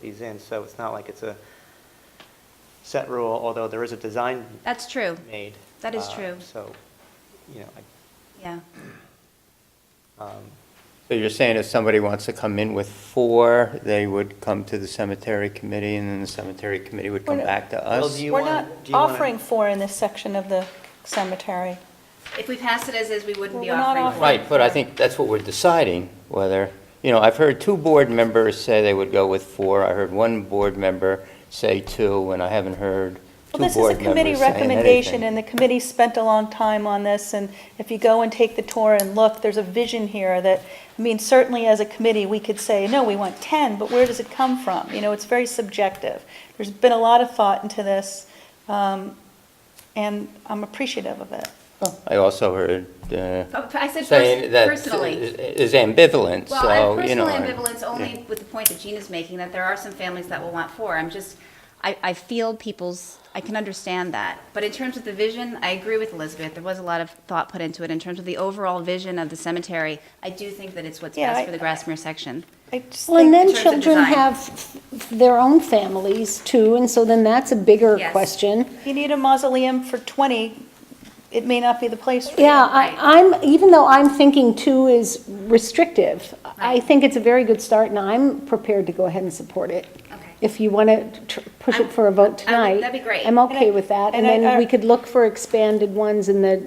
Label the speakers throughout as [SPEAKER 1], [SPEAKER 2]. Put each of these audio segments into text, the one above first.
[SPEAKER 1] these in, so it's not like it's a set rule, although there is a design
[SPEAKER 2] That's true.
[SPEAKER 1] made.
[SPEAKER 2] That is
[SPEAKER 1] uh,
[SPEAKER 2] true.
[SPEAKER 1] So, you know,
[SPEAKER 2] Yeah.
[SPEAKER 1] I- um,
[SPEAKER 3] So you're saying if somebody wants to come in with four, they would come to the cemetery committee, and then the cemetery committee would come
[SPEAKER 4] Well,
[SPEAKER 3] back to
[SPEAKER 1] well,
[SPEAKER 3] us?
[SPEAKER 1] do you
[SPEAKER 4] We're
[SPEAKER 1] wanna-
[SPEAKER 4] not
[SPEAKER 1] do you wanna-
[SPEAKER 4] offering four in this section of the cemetery.
[SPEAKER 2] If we pass it as is, we wouldn't be
[SPEAKER 4] Well, we're not
[SPEAKER 2] offering.
[SPEAKER 4] offering-
[SPEAKER 2] one.
[SPEAKER 3] Right, but I think that's what we're deciding, whether, you know, I've heard two board members say they would go with four. I heard one board member say two, and I haven't heard two
[SPEAKER 4] Well, this is a
[SPEAKER 3] board
[SPEAKER 4] committee
[SPEAKER 3] members saying
[SPEAKER 4] recommendation,
[SPEAKER 3] anything.
[SPEAKER 4] and the committee spent a long time on this, and if you go and take the tour and look, there's a vision here that, I mean, certainly as a committee, we could say, no, we want 10, but where does it come from? You know, it's very subjective. There's been a lot of thought into this, um, and I'm appreciative of it.
[SPEAKER 3] I also heard uh,
[SPEAKER 2] Oh, But I said
[SPEAKER 3] saying
[SPEAKER 2] pers-
[SPEAKER 3] that
[SPEAKER 2] personally.
[SPEAKER 3] is ambivalent,
[SPEAKER 2] Well, I
[SPEAKER 3] so,
[SPEAKER 2] have
[SPEAKER 3] you know.
[SPEAKER 2] personal ambivalence only with the point that Gina's making, that there are some families that will want four. I'm just, I, I feel people's, I can understand that. But in terms of the vision, I agree with Elizabeth. There was a lot of thought put into it. In terms of the overall vision of the cemetery, I do think that it's what's
[SPEAKER 4] Yeah,
[SPEAKER 2] best
[SPEAKER 4] I-
[SPEAKER 2] for the Grassmere section.
[SPEAKER 4] I just
[SPEAKER 5] Well, and
[SPEAKER 4] think,
[SPEAKER 5] then
[SPEAKER 2] terms of
[SPEAKER 5] children
[SPEAKER 2] design.
[SPEAKER 5] have f- f- their own families too, and so then that's a bigger
[SPEAKER 2] Yes.
[SPEAKER 5] question.
[SPEAKER 4] if you need a mausoleum for 20, it may not be the place for you.
[SPEAKER 5] Yeah, I, I'm, even though I'm thinking two is restrictive, I
[SPEAKER 2] Right.
[SPEAKER 5] think it's a very good start, and I'm prepared to go ahead and support it.
[SPEAKER 2] Okay.
[SPEAKER 5] If you want to push
[SPEAKER 2] I'm-
[SPEAKER 5] it for a vote
[SPEAKER 2] I would-
[SPEAKER 5] tonight.
[SPEAKER 2] that'd be great.
[SPEAKER 5] I'm
[SPEAKER 4] I-
[SPEAKER 5] okay with that, and
[SPEAKER 4] and I- I-
[SPEAKER 2] uh,
[SPEAKER 5] then we could look for expanded ones in the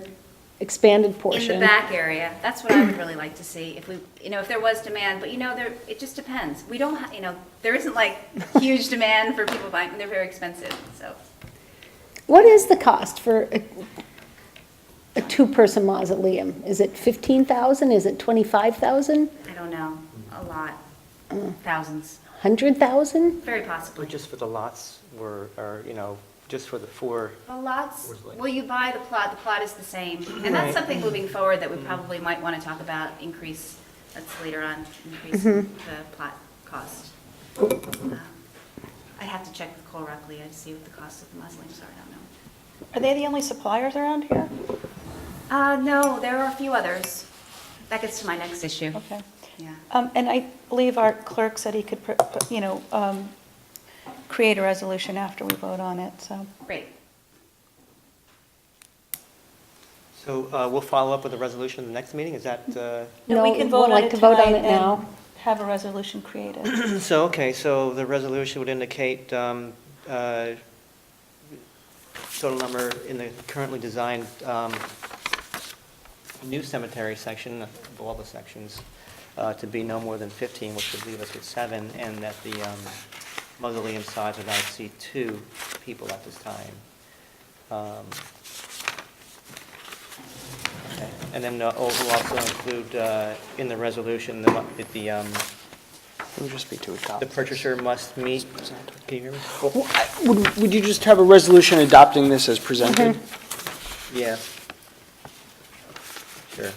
[SPEAKER 5] expanded
[SPEAKER 2] In
[SPEAKER 5] portion.
[SPEAKER 2] the back area, that's what I would really like to see, if we, you know, if there was demand, but you know, there, it just depends. We don't, ha- you know, there isn't like huge demand for people buying, and they're very expensive, so.
[SPEAKER 5] What is the cost for a, a two-person mausoleum? Is it 15,000, is it 25,000,
[SPEAKER 2] I don't know, a lot, thousands,
[SPEAKER 5] 100,000?
[SPEAKER 2] very possibly.
[SPEAKER 1] just for the lots were, or, you know, just for the four,
[SPEAKER 2] The lots,
[SPEAKER 1] Where's the light?
[SPEAKER 2] well, you buy the plot, the plot is the same, and that's something moving forward that we probably might want to talk about, increase, that's later on, increase the plot cost. Um, I'd have to check with Cole Rockley, I'd see what the cost of the mausoleums are, I don't know.
[SPEAKER 4] Are they the only suppliers around here?
[SPEAKER 2] Uh, no, there are a few others. That gets to my next issue.
[SPEAKER 4] Okay.
[SPEAKER 2] Yeah.
[SPEAKER 4] Um, And I believe our clerk said he could, pr- pr- you know, um, create a resolution after we vote on it, so.
[SPEAKER 2] Great.
[SPEAKER 1] so uh, we'll follow up with a resolution in the next meeting, is that, uh,
[SPEAKER 5] No,
[SPEAKER 4] we
[SPEAKER 5] we
[SPEAKER 4] can
[SPEAKER 5] would
[SPEAKER 4] vote on
[SPEAKER 5] like
[SPEAKER 4] it
[SPEAKER 5] to vote on
[SPEAKER 4] tonight um,
[SPEAKER 5] it
[SPEAKER 4] and
[SPEAKER 5] now.
[SPEAKER 4] Have a resolution created.
[SPEAKER 1] so, okay, so the resolution would indicate um, uh, total number in the currently designed um, new cemetery section, of all the sections, uh, to be no more than 15, which would leave us with seven, and that the um, mausoleum size would not exceed two people at this time. Um, Okay. And then uh, oh, we'll also include uh, in the resolution the, mu- that the, um,
[SPEAKER 6] It would just be to adopt.
[SPEAKER 1] the purchaser must meet, can you hear me?
[SPEAKER 6] Well, I- Would, would you just have a resolution adopting this as presented?
[SPEAKER 1] Yeah. Sure.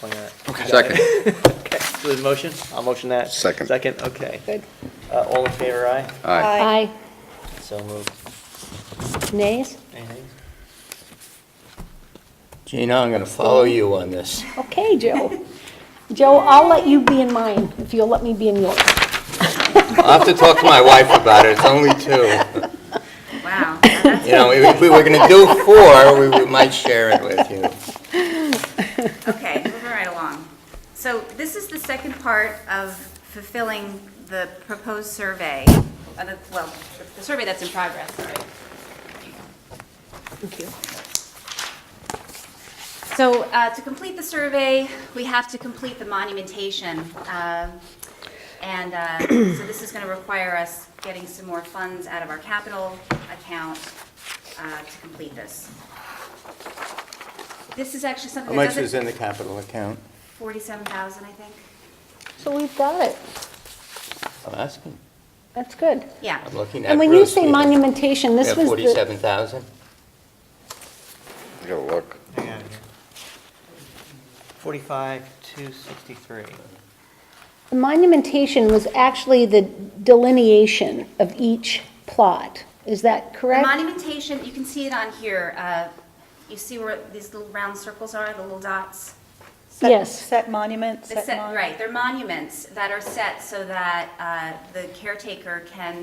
[SPEAKER 1] Why not?
[SPEAKER 7] Second.
[SPEAKER 1] Okay, so there's a motion? I'll motion that.
[SPEAKER 7] Second.
[SPEAKER 1] Second, okay.
[SPEAKER 5] Good.
[SPEAKER 1] Uh, All in favor, aye?
[SPEAKER 7] Aye.
[SPEAKER 5] Aye.
[SPEAKER 1] So moved.
[SPEAKER 5] Nays?
[SPEAKER 1] Anything?
[SPEAKER 3] Gina, I'm going to follow you on this.
[SPEAKER 5] Okay, Joe. Joe, I'll let you be in mine, if you'll let me be in yours.
[SPEAKER 3] I'll have to talk to my wife about it, it's only two.
[SPEAKER 2] Wow. Now that's-
[SPEAKER 3] You know, if we were going to do four, we- we might share it with you.
[SPEAKER 2] Okay, moving right along. So this is the second part of fulfilling the proposed survey, uh, the- well, the survey that's in progress, sorry. So uh, to complete the survey, we have to complete the monumentation. um, And uh, so this is going to require us getting some more funds out of our capital account uh, to complete this. This is actually
[SPEAKER 3] How
[SPEAKER 2] something that
[SPEAKER 3] much
[SPEAKER 2] doesn't...
[SPEAKER 3] is in the capital account?
[SPEAKER 2] 47,000, I think.
[SPEAKER 5] So we've got it.
[SPEAKER 3] I'm asking,
[SPEAKER 5] That's good.
[SPEAKER 2] Yeah.
[SPEAKER 3] I'm looking at
[SPEAKER 5] And when you
[SPEAKER 3] Bruce.
[SPEAKER 5] say
[SPEAKER 3] We have-
[SPEAKER 5] monumentation,
[SPEAKER 3] We
[SPEAKER 5] this
[SPEAKER 3] have
[SPEAKER 5] was the,
[SPEAKER 3] 47,000?
[SPEAKER 7] I gotta look.
[SPEAKER 1] Hang on here. Forty-five, two sixty-three.
[SPEAKER 5] the monumentation was actually the delineation of each plot. Is that
[SPEAKER 2] The
[SPEAKER 5] correct?
[SPEAKER 2] monumentation, you can see it on here. uh, You see where these little round circles are, the little dots?
[SPEAKER 4] set-
[SPEAKER 5] Yes.
[SPEAKER 4] Set monument,
[SPEAKER 2] The
[SPEAKER 4] set
[SPEAKER 2] set-
[SPEAKER 4] mon-
[SPEAKER 2] Right, they're monuments that are set so that uh, the caretaker can